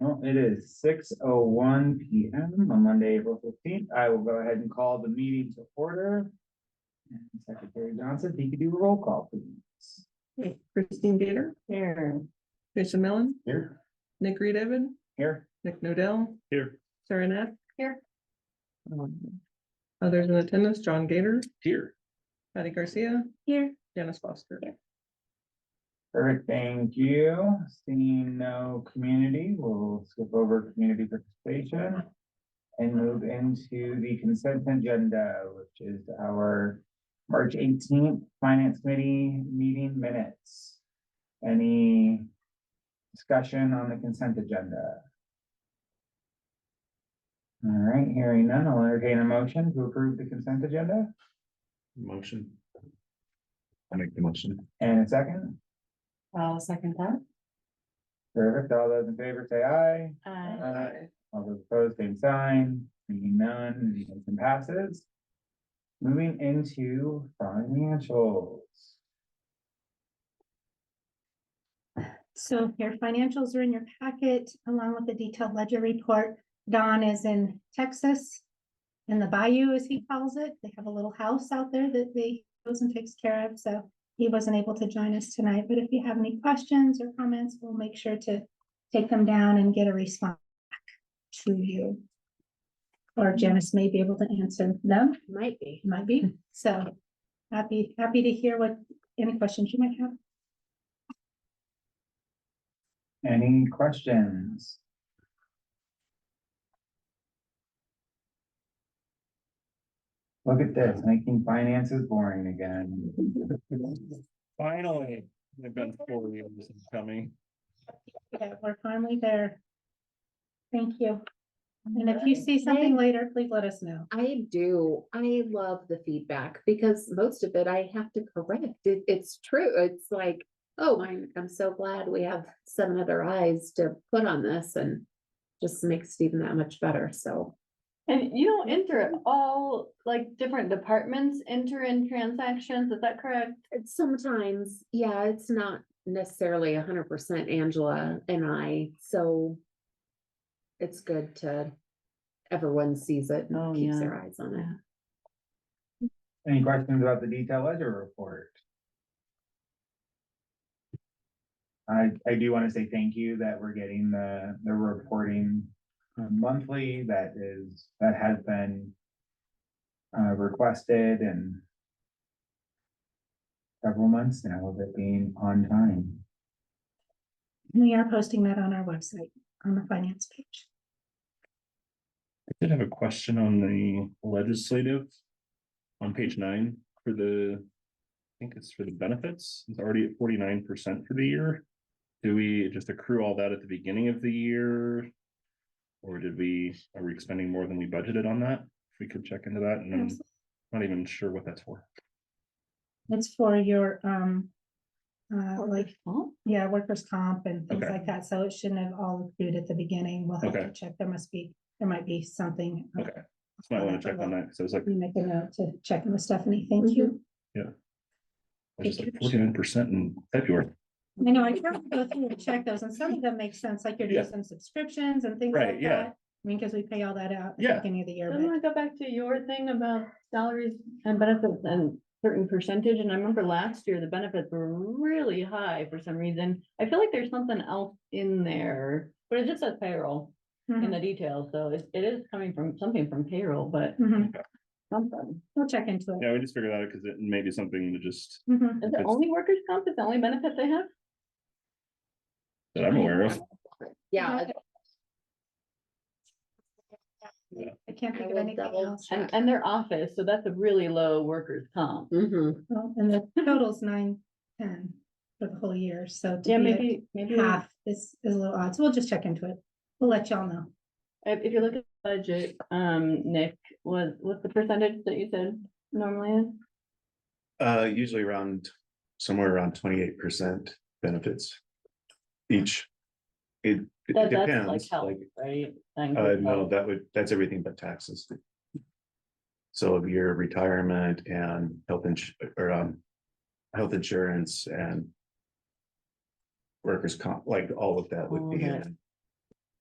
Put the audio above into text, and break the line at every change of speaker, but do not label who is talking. Well, it is six oh one P M on Monday, April fifteenth. I will go ahead and call the meeting to order. And Secretary Johnson, if you could do a roll call, please.
Okay, Christine Gator,
Here.
Jason Mellon,
Here.
Nick Reed Evan,
Here.
Nick Nodell,
Here.
Sarah Nat.
Here.
Um, Others in attendance, John Gator,
Here.
Patty Garcia,
Here.
Janice Foster.
Yeah.
Perfect, thank you. Seeing no community, we'll skip over community participation. And move into the consent agenda, which is our March eighteenth Finance Committee meeting minutes. Any discussion on the consent agenda? All right, hearing none, I'll entertain a motion to approve the consent agenda
Motion. I make the motion.
and a second.
I'll second that.
Perfect, all those in favor say aye.
Uh,
Aye. All those opposed, same sign, seeing none, the motion passes. Moving into financials.
So your financials are in your packet along with the detailed ledger report. Don is in Texas. In the bayou, as he calls it. They have a little house out there that they goes and takes care of, so he wasn't able to join us tonight, but if you have any questions or comments, we'll make sure to take them down and get a response back to you. Or Janice may be able to answer them,
Might be.
might be, so happy, happy to hear what, any questions you might have.
Any questions? Look at this, making finances boring again.
Finally, they've been four years coming.
Yeah, we're finally there. Thank you. And if you see something later, please let us know.
I do. I love the feedback because most of it I have to correct. It, it's true. It's like, oh, I'm, I'm so glad we have seven other eyes to put on this and just makes it even that much better. So
And you don't enter all, like, different departments enter in transactions, is that correct?
it's sometimes, yeah, it's not necessarily a hundred percent Angela and I, so it's good to, everyone sees it
Oh,
and keeps
yeah.
their eyes on it.
Any questions about the detailed ledger report? I, I do want to say thank you that we're getting the, the reporting uh, monthly that is, that has been uh, requested and several months now of it being on time.
We are posting that on our website, on the finance page.
I did have a question on the legislative. On page nine for the. I think it's for the benefits. It's already at forty-nine percent for the year. Do we just accrue all that at the beginning of the year? Or did we, are we expending more than we budgeted on that? If we could check into that and I'm not even sure what that's for.
It's for your, um, uh, like, yeah, workers' comp and things
Okay.
like that, so it shouldn't have all accrued at the beginning. We'll have to
Okay.
check. There must be, there might be something. uh,
Okay. So I want to check on that. So it's like,
We make a note to check with Stephanie. Thank you.
it's just like forty-nine percent in February.
I know, I tried to go through and check those, and some of them make sense, like you're
Yeah.
doing some subscriptions and things
Right,
like
yeah.
that. I mean, because we pay all that out at the
Yeah.
beginning of the year,
I
but.
want to go back to your thing about salaries and benefits and certain percentage, and I remember last year, the benefits were really high for some reason. I feel like there's something else in there, but it just says payroll in
Mhm,
the details, so it, it is coming from, something from payroll, but
mhm.
something.
We'll check into it.
Yeah, we just figured out because it may be something to just,
Mhm.
Is it
It's-
only workers' comp, is the only benefit they have?
that I'm aware of.
Yeah,
I can't
I
think of
will
anything
double
else.
And, and their office, so that's a really low workers' comp.
mhm.
Well, And the total's nine, ten for the whole year, so. to
Yeah,
be at
maybe, maybe. we-
Half is, is a little odd, so we'll just check into it. We'll let y'all know.
If, if you look at the budget, um, Nick, was, what's the percentage that you said normally is?
Uh, usually around, somewhere around twenty-eight percent benefits each. It it
That- that's like
depends,
health,
like,
right? Things
uh,
like
no,
health.
that would, that's everything but taxes. So of your retirement and health ins- or, um, health insurance and workers' comp, like all of that would
All
be
that.
in